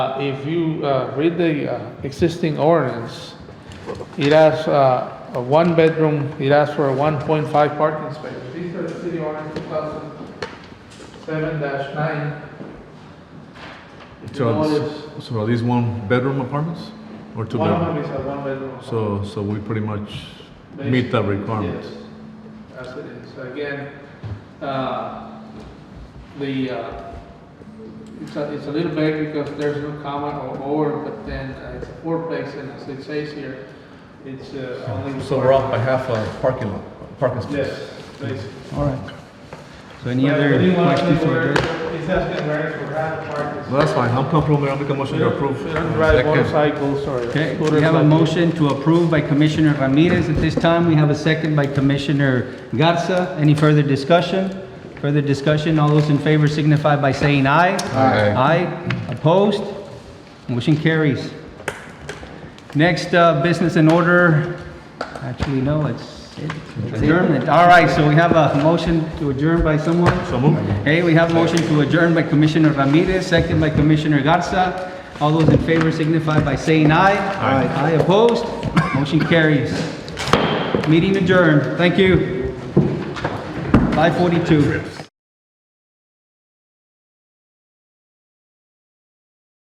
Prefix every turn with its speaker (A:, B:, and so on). A: Uh, If you uh, read the uh, existing ordinance, it has uh, a one-bedroom, it has for a 1.5 parking space. These are the city ordinance 2007-9. If you
B: So,
A: notice,
B: it's- so are these one-bedroom apartments
A: one
B: or
A: of
B: two-bedroom?
A: them is a one-bedroom.
B: So, so we pretty much meet that requirement.
A: Yes, as it is. Again, uh, the, uh, it's a, it's a little vague because there's no comma or or, but then uh, it's a fourplex and as it says here, it's uh, only.
B: So we're off by half a parking lot, parking space.
A: Yes, basically.
C: All right. So any
A: But I
C: other
A: really wanna know
C: questions
A: where-
C: or?
A: It's asking where it's for half parking.
B: Well, that's fine, I'm comfortable, Mayor, I'll make a motion to approve.
A: We don't drive
B: Second.
A: motorcycles or
C: Okay, we
A: scooters
C: have a
A: like-
C: motion to approve by Commissioner Ramirez. At this time, we have a second by Commissioner Garza. Any further discussion? Further discussion, all those in favor signify by saying aye.
B: Aye.
C: Aye, opposed? Motion carries. Next, uh, business in order, actually, no, it's it's adjournment. All right, so we have a motion to adjourn by someone?
B: So move.
C: Okay, we have motion to adjourn by Commissioner Ramirez, second by Commissioner Garza. All those in favor signify by saying aye. Aye. Aye opposed, motion carries. Meeting adjourned, thank you. 5:42.